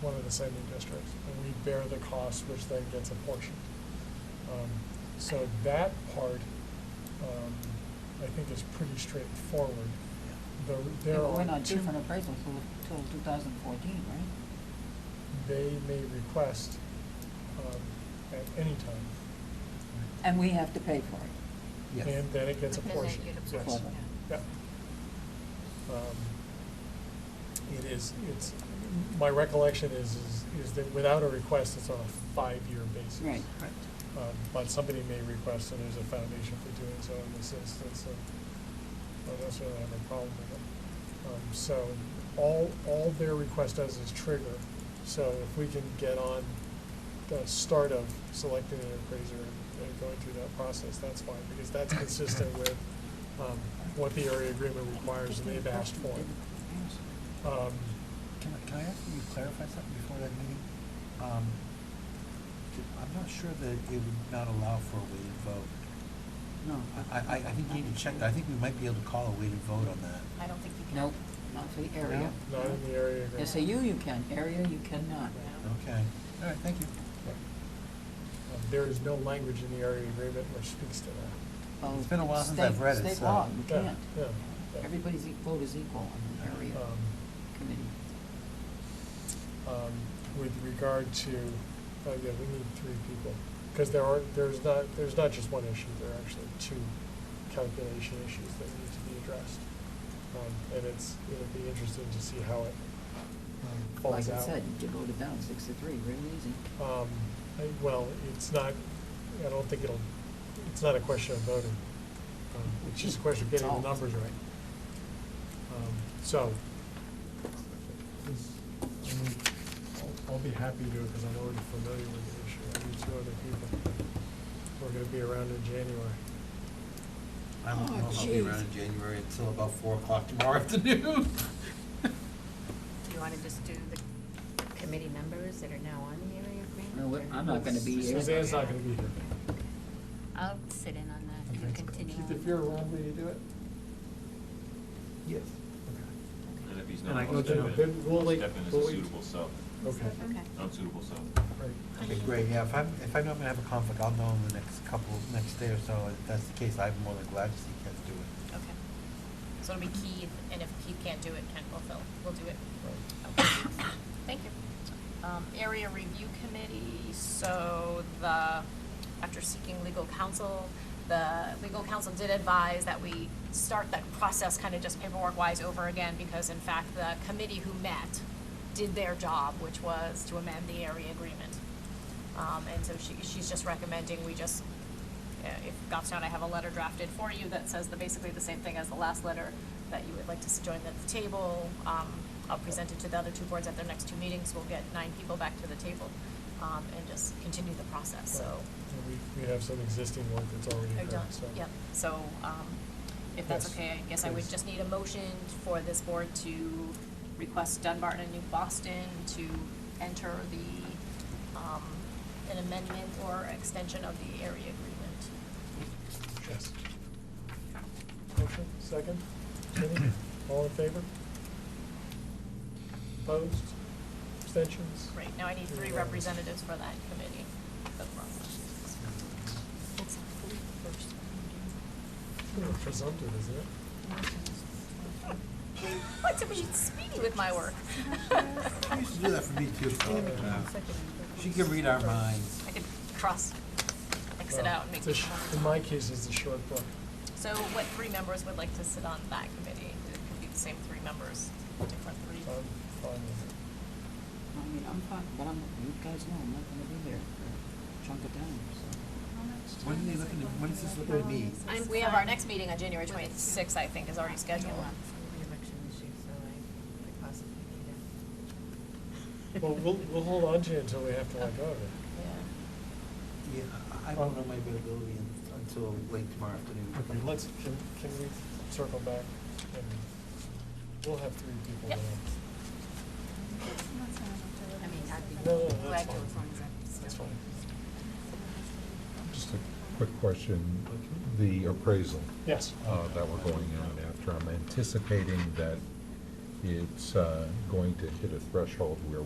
one of the sending districts, and we bear the cost, which then gets apportioned. Um, So that part, um, I think is pretty straightforward. The- Yeah, There but are we're not due two- for an appraisal till, till two thousand fourteen, right? They may request um, at any time, And we have to pay for it. Yes. and then it gets And then apportioned. you'd Yes. apportion, Yeah. Um, It is, it's, my recollection is, is- is that without a request, it's on a five-year basis. Right. Correct. Um, But somebody may request, and there's a foundation for doing so in this instance, and I don't necessarily have a problem with it. Um, So all, all their request does is trigger, so if we can get on the start of selecting an appraiser and- and going through that process, that's fine, because that's consistent with um, what the area agreement requires, and they've asked for it. Um, Can I, can I ask you to clarify something before that meeting? Um, j- I'm not sure that it would not allow for a weighted vote. No. uh, I, I, I think you need to check that. I think we might be able to call a weighted vote on that. I don't think you can. Nope, not for the area. Not in the area agreement. SAU you can, area you cannot. Okay. All right, thank you. Um, There is no language in the area agreement which speaks to that. Well, It's been a while since I've Oh, state- read it, State so- law, you Yeah, can't. yeah, yeah. Everybody's e- vote is equal on the area Um, committee. um, With regard to, oh yeah, we need three people, because there are, there's not, there's not just one issue, there are actually two calculation issues that need to be addressed. Um, And it's, it'll be interesting to see how it um, Like falls out. I said, you voted down six to three, real easy. Um, I, well, it's not, I don't think it'll, it's not a question of voting. Um, It's just a question of getting the It's all- numbers right. Um, So, this- I mean, I'll, I'll be happy to, because I'm already familiar with the issue. I need two other people. We're gonna be around in January. I don't Oh, know if I'll be jeez. around in January until about four o'clock tomorrow afternoon. Do you want to just do the committee members that are now on the area agreement? No, we- or- I'm not gonna be here. Suzanne's not gonna be here. I'll sit in on that and continue. Keith, on. if you're around, will you do it? Yes. Okay. And if he's And not, I I'll go step to- in. then we'll, I'll like, Step in as we'll, a like- suitable sub, Okay, Okay. unsuitable sub. great. Okay, great, yeah, if I'm, if I know I'm gonna have a conflict, I'll know in the next couple, next day or so. If that's the case, I'm more than glad to see Ken do it. Okay. So it'll be Keith, and if Keith can't do it, Ken will fill, we'll do it. Okay. Thank you. Um, area review committee, so the, after seeking legal counsel, the legal counsel did advise that we start that process kind of just paperwork-wise over again, because in fact, the committee who met did their job, which was to amend the area agreement. Um, and so she, she's just recommending we just uh, if Goffstown, I have a letter drafted for you that says the, basically the same thing as the last letter, that you would like to s- join at the table. Um, I'll present it to the other two boards at their next two meetings, we'll get nine people back to the table, um, and just continue the process, so. And We, we have some existing work that's already I've done, done- so. Yep, so, um, if that's Yes, okay, I guess I would please. just need a motion for this board to request Dunbarton and New Boston to enter the, um, an amendment or extension of the area agreement. Yes. Motion, second. Any? All in favor? Opposed? Abstentions? Right, now I need three representatives for that committee. That's wrong. That's not the first one, It's kind of presumptive, isn't it? What, to be speedy with my work. She used to do that for me too. Uh, Uh, She can read our minds. I could cross, X it Well, out and make it's a it sh- one. In my case, it's a short book. So what three members would like to sit on that committee? It could be the same three members, I'm different three. fine with it. I mean, I'm fine, but I'm, you guys know I'm not gonna be there for a chunk of time, so. When are they looking at, when is this looking at me? I'm We have our fine. next meeting on January With it, too. twenty-sixth, I think, is already scheduled. I know I'm for reelection this year, so I could possibly be there. Well, we'll, we'll hold on to it until we have to let go of it. Yeah. Yeah, I- I don't know my availability un- until late tomorrow afternoon. Okay, let's, can, can we circle back and we'll have three people Yep. there. I mean, I'd be No, no, that's glad to fine. as long as I'm still. That's fine. Just a quick question, the appraisal Yes. uh, that we're going out after, I'm anticipating that it's uh, going to hit a threshold where